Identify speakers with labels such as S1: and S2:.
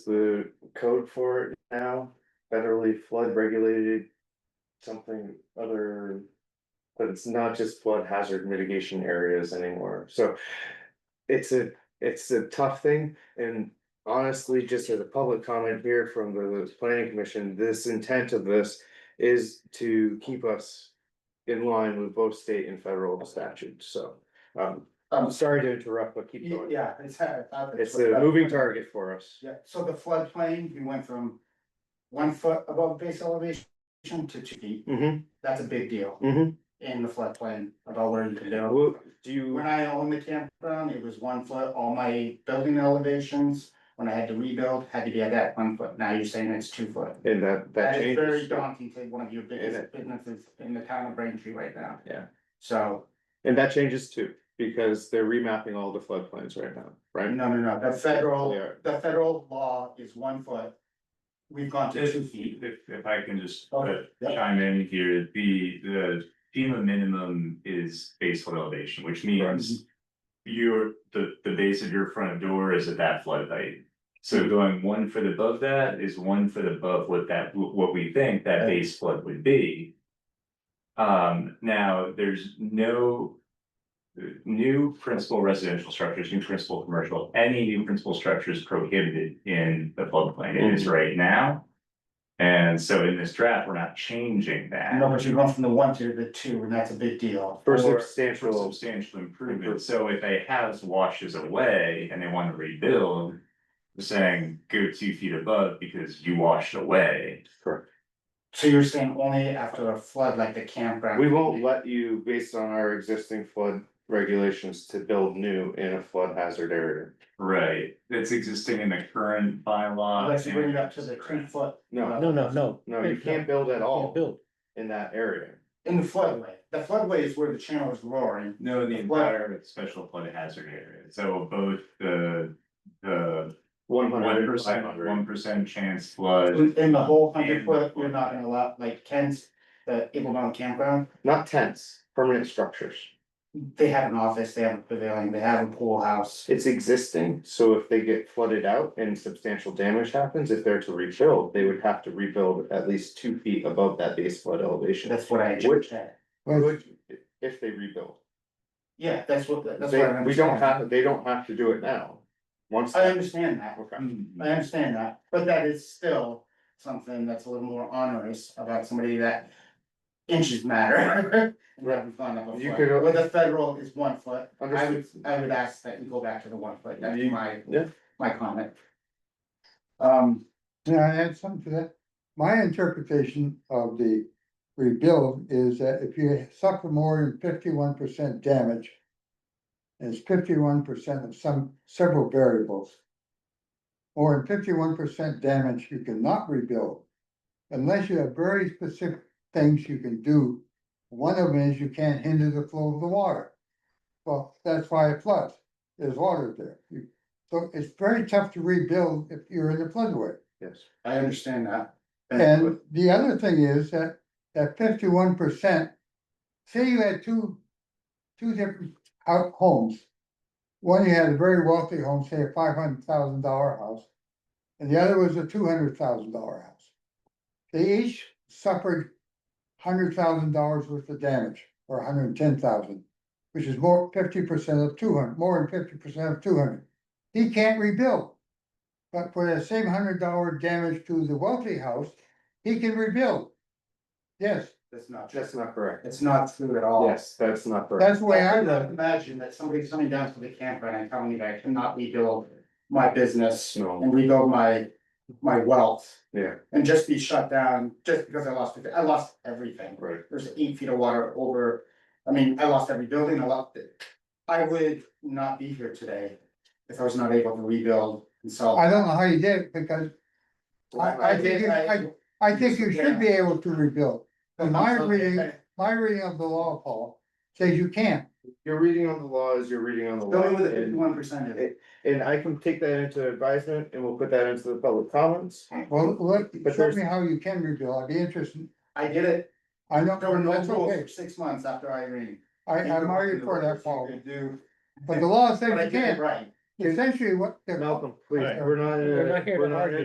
S1: the code for it now, federally flood regulated. Something other, but it's not just flood hazard mitigation areas anymore, so. It's a, it's a tough thing, and honestly, just as a public comment here from the planning commission, this intent of this. Is to keep us in line with both state and federal statutes, so, um, I'm
S2: Um,
S1: sorry to interrupt, but keep going.
S2: yeah, it's. uh, uh,
S1: It's a moving target for us.
S2: Yeah, so the floodplain, we went from one foot above base elevation to two feet.
S1: Mm-hmm,
S2: That's a big deal
S1: mm-hmm.
S2: in the floodplain about what you can do.
S1: Well, do you?
S2: When I owned the campground, it was one foot, all my building elevations, when I had to rebuild, had to be at that one foot, now you're saying it's two foot.
S1: And that, that
S2: That is very
S1: changes.
S2: daunting to one of your
S1: And
S2: biggest businesses in the town of Braintree right now.
S1: Yeah.
S2: So,
S1: And that changes too, because they're remapping all the floodplains right now, right?
S2: no, no, no, the
S1: They
S2: federal,
S1: are.
S2: the federal law is one foot. We've gone to
S3: If,
S2: two feet.
S3: if, if I can just uh,
S2: Okay, yeah.
S3: chime in here, the, the FEMA minimum is basal elevation, which means.
S2: Mm-hmm.
S3: Your, the, the base of your front door is at that flood height.
S2: Mm-hmm.
S3: So going one foot above that is one foot above what that, what we think that base flood would be. Um, now, there's no. New principal residential structures, new principal commercial, any new principal structures prohibited in the floodplain, it
S2: Mm-hmm.
S3: is right now. And so in this draft, we're not changing that.
S2: No, but you're going from the one to the two, and that's a big deal.
S1: For
S3: for- For
S1: substantial,
S3: substantial improvement, so if a house washes away and they wanna rebuild. We're saying go two feet above because you washed away.
S1: correct.
S2: So you're saying only after a flood like the campground?
S1: We won't let you, based on our existing flood regulations, to build new in a flood hazard area.
S3: Right, that's existing in the current bylaw.
S2: Let's bring it up to the two foot. Uh,
S1: No,
S4: No, no, no.
S1: no, you can't build at
S4: Can't
S1: all
S4: build.
S1: in that area.
S2: In the floodway. The floodway is where the channel is roaring.
S3: No, the entire special flood hazard area, so both the, the
S1: One
S3: one
S1: hundred
S3: percent, one percent chance flood.
S2: In the whole hundred foot, you're not gonna allow, like Ken's, the Eagle Mountain Campground,
S1: not tents, permanent structures.
S2: they have an office, they have a pavilion, they have a pool house.
S1: It's existing, so if they get flooded out and substantial damage happens, if they're to rebuild, they would have to rebuild at least two feet above that base flood elevation.
S2: That's what I
S1: Which-
S2: said.
S1: Would- If they rebuild.
S2: Yeah, that's what, that's what
S1: They,
S2: I understand.
S1: we don't have, they don't have to do it now. Once.
S2: I understand that.
S1: Okay.
S3: Mm-hmm. mm,
S2: I understand that, but that is still something that's a little more onerous about somebody that inches matter. We haven't gone up a
S1: You
S2: foot.
S1: could-
S2: With the federal is one foot, I would,
S1: Understood.
S2: I would ask that you go back to the one foot, that's
S1: You-
S2: my,
S1: yeah.
S2: my comment. Um,
S5: Can I add something to that? My interpretation of the rebuild is that if you suffer more than fifty-one percent damage. and It's fifty-one percent of some, several variables. Or in fifty-one percent damage, you cannot rebuild. Unless you have very specific things you can do. One of them is you can't hinder the flow of the water. Well, that's why it floods. There's water there. You- So it's very tough to rebuild if you're in the floodway.
S1: Yes.
S2: I understand that.
S5: And the other thing is that, that fifty-one percent, say you had two, two different hou- homes. One you had a very wealthy home, say a five hundred thousand dollar house, and the other was a two hundred thousand dollar house. They each suffered hundred thousand dollars worth of damage, or $110,000, which is more, fifty percent of two hundred, more than fifty percent of two hundred. He can't rebuild. But for that same hundred dollar damage to the wealthy house, he can rebuild. Yes,
S2: That's not true,
S1: That's not correct.
S2: it's not true at all.
S1: Yes, that's not correct.
S5: that's the way I
S2: could not
S5: read it.
S2: Imagine that somebody's coming down to the campground and telling me that I cannot rebuild my business
S1: No.
S2: and rebuild my, my wealth.
S1: Yeah,
S2: and just be shut down just because I lost, it. I lost everything.
S1: right.
S2: There's eight feet of water over, I mean, I lost every building, I lost it. I would not be here today if I was not able to rebuild and sell.
S5: I don't know how you did it because I- I think you-
S2: I-
S5: I think you should be able to rebuild. In my reading,
S2: The
S5: my reading of the law, Paul, says you can't.
S1: Your reading on the law is your reading on the law.
S2: only with
S1: and-
S2: fifty-one percent of it,
S1: And I can take that into advisement and we'll put that into the public comments.
S5: Well, look,
S1: But
S5: show
S1: there's-
S5: me how you can rebuild. I'd be interested.
S2: I did it,
S5: I know,
S2: there were no
S5: that's
S2: rules
S5: okay.
S2: for six months after Irene.
S5: I, I'm already for that,
S2: fall.
S5: Paul. But the law says
S2: But I
S5: you
S2: did it
S5: can't.
S2: right,
S6: essentially what. the-
S1: Malcolm, please,
S5: Alright.
S1: we're not, in a-
S5: We're not here to
S1: we're not in a
S5: argue.